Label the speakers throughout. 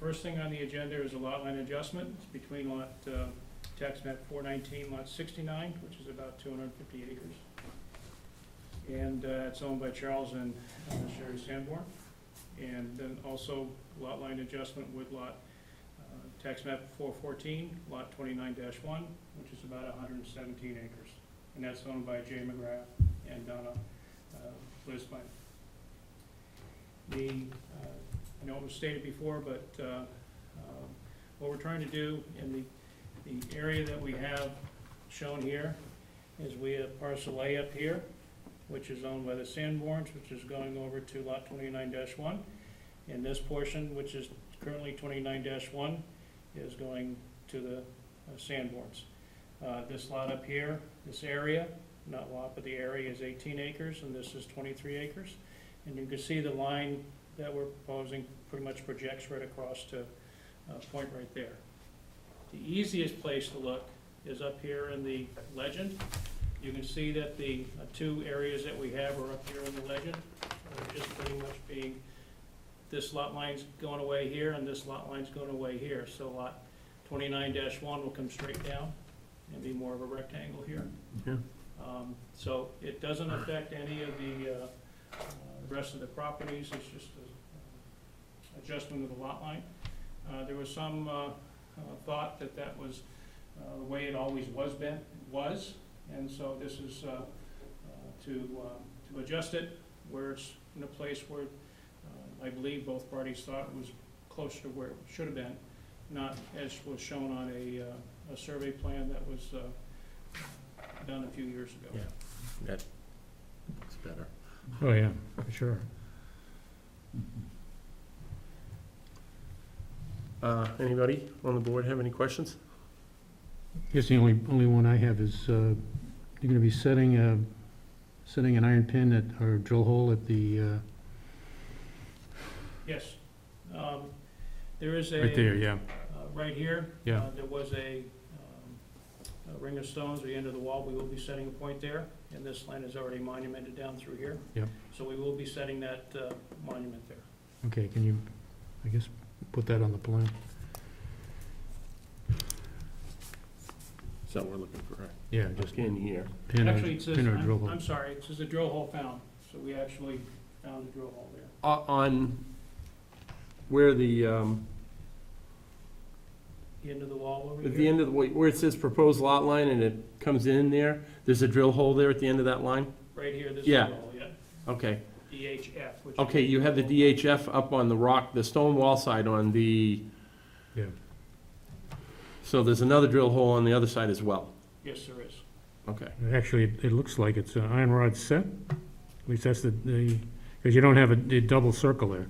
Speaker 1: First thing on Uh, the agenda is a lot line adjustment It's between lot, uh, tax map four nineteen, lot sixty-nine, which is about two hundred and fifty acres. And uh, it's owned by Charles and uh, Sherry Sanborn. And then also lot line adjustment with lot, uh, tax map four fourteen, lot twenty-nine one, which is about hundred and seventeen acres. And that's owned by Jay McGrath and Donna uh, Lisbon. The, uh, I know it was stated before, but uh, um, what we're trying to do in the, the area that we have shown here is we have parcel A up here, which is owned by the Sanborns, which is going over to lot twenty-nine one. And this portion, which is currently twenty-nine one, is going to the uh, Sanborns. Uh, This lot up here, this area, not lot, but the area is eighteen acres, and this is twenty-three acres. And you can see the line that we're proposing pretty much projects right across to a point right there. The easiest place to look is up here in the legend. You can see that the uh, two areas that we have are up here in the legend. They're just pretty much being, this lot line's going away here and this lot line's going away here. So lot twenty-nine one will come straight down and be more of a rectangle here.
Speaker 2: Yeah.
Speaker 1: Um, So it doesn't affect any of the uh, uh, rest of the properties, it's just a, uh, adjustment of the lot line. Uh, There was some uh, uh, thought that that was uh, the way it always was been, was, and so this is uh, uh, to, uh, to adjust it where it's in a place where uh, I believe both parties thought was closer to where it should have been, not as was shown on a, uh, a survey plan that was uh, done a few years ago.
Speaker 2: Yeah. It's better.
Speaker 3: Oh, yeah, for sure.
Speaker 2: Uh, anybody on the board have any questions?
Speaker 3: Guess the only, only one I have is, uh, you're gonna be setting, uh, setting an iron pin at, or drill hole at the, uh,
Speaker 1: Yes. Um, There is a.
Speaker 3: right there, yeah,
Speaker 1: uh, right here.
Speaker 3: Yeah.
Speaker 1: Uh, There was a um, a ring of stones, the end of the wall, we will be setting a point there, and this land is already monumented down through here.
Speaker 3: Yep.
Speaker 1: So we will be setting that uh, monument there.
Speaker 3: okay, can you, I guess, put that on the plan?
Speaker 2: Is that what we're looking for, right?
Speaker 3: Yeah, just
Speaker 2: Just in here.
Speaker 3: pin
Speaker 1: Actually,
Speaker 3: or,
Speaker 1: it says,
Speaker 3: pin or drill
Speaker 1: I'm
Speaker 3: hole.
Speaker 1: I'm sorry, it says a drill hole found, so we actually found a drill hole there.
Speaker 2: O- Uh, On where the, um,
Speaker 1: The end of the wall over here.
Speaker 2: at the end of, the where it says proposed lot line and it comes in there, there's a drill hole there at the end of that line?
Speaker 1: Right here, this
Speaker 2: Yeah.
Speaker 1: drill hole, yeah,
Speaker 2: Okay,
Speaker 1: DHF, which.
Speaker 2: okay, you have the DHF up on the rock, the stone wall side on the,
Speaker 3: Yeah,
Speaker 2: so there's another drill hole on the other side as well.
Speaker 1: Yes, there is.
Speaker 2: Okay,
Speaker 3: actually, it, it looks like it's an iron rod set, at least that's the, the, because you don't have a, a double circle there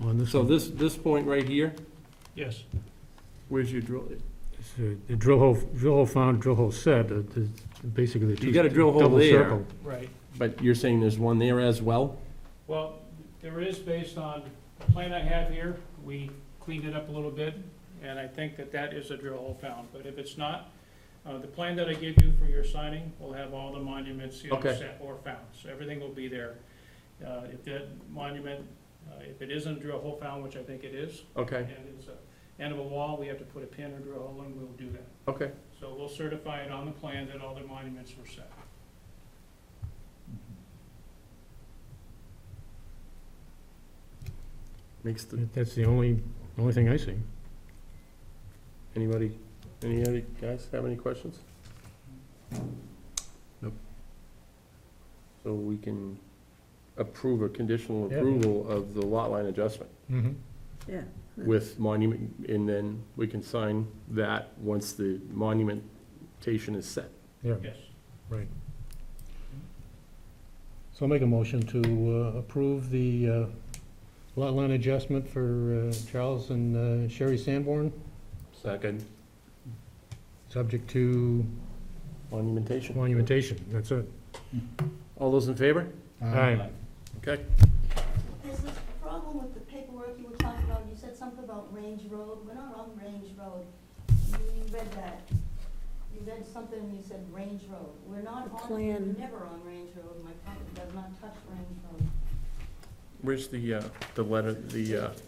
Speaker 3: on this
Speaker 2: so
Speaker 3: one.
Speaker 2: this, this point right here,
Speaker 1: Yes,
Speaker 2: where's your drill?
Speaker 3: It's a- The drill hole, drill hole found, drill hole set, uh, the- basically the two.
Speaker 2: You got a drill hole
Speaker 3: double
Speaker 2: there.
Speaker 3: circle.
Speaker 1: right.
Speaker 2: But you're saying there's one there as well?
Speaker 1: Well, there is based on the plan I have here, we cleaned it up a little bit, and I think that that is a drill hole found, but if it's not, uh, the plan that I give you for your signing will have all the monuments, you know,
Speaker 2: Okay.
Speaker 1: set or found, so everything will be there. Uh, if that monument, uh, if it isn't a drill hole found, which I think it is,
Speaker 2: Okay,
Speaker 1: and it's a end of a wall, we have to put a pin or drill hole, and we'll do that.
Speaker 2: okay.
Speaker 1: So we'll certify it on the plan that all the monuments were set.
Speaker 2: Makes the,
Speaker 3: That- That's the only, only thing I see.
Speaker 2: anybody, any other guys have any questions?
Speaker 3: Nope.
Speaker 2: So we can approve a conditional
Speaker 3: Yeah.
Speaker 2: approval of the lot line adjustment
Speaker 3: Mm-hmm.
Speaker 4: Yeah.
Speaker 2: with monument, and then we can sign that once the monumentation is set.
Speaker 3: Yeah,
Speaker 1: Yes,
Speaker 3: so I'll make a motion to uh, approve the uh, lot line adjustment for uh, Charles and uh, Sherry Sanborn,
Speaker 2: Second.
Speaker 3: subject to
Speaker 2: Monumentation.
Speaker 3: monumentation, that's it.
Speaker 2: All those in favor?
Speaker 3: Aye.
Speaker 2: Okay.
Speaker 4: There's this problem with the paperwork you were talking about, you said something about Range Road, we're not on Range Road. You read that, you read something and you said Range Road, we're not on, we're
Speaker 5: Plan.
Speaker 4: never on Range Road, my property does not touch Range Road.
Speaker 2: Where's the, uh, the letter, the, uh,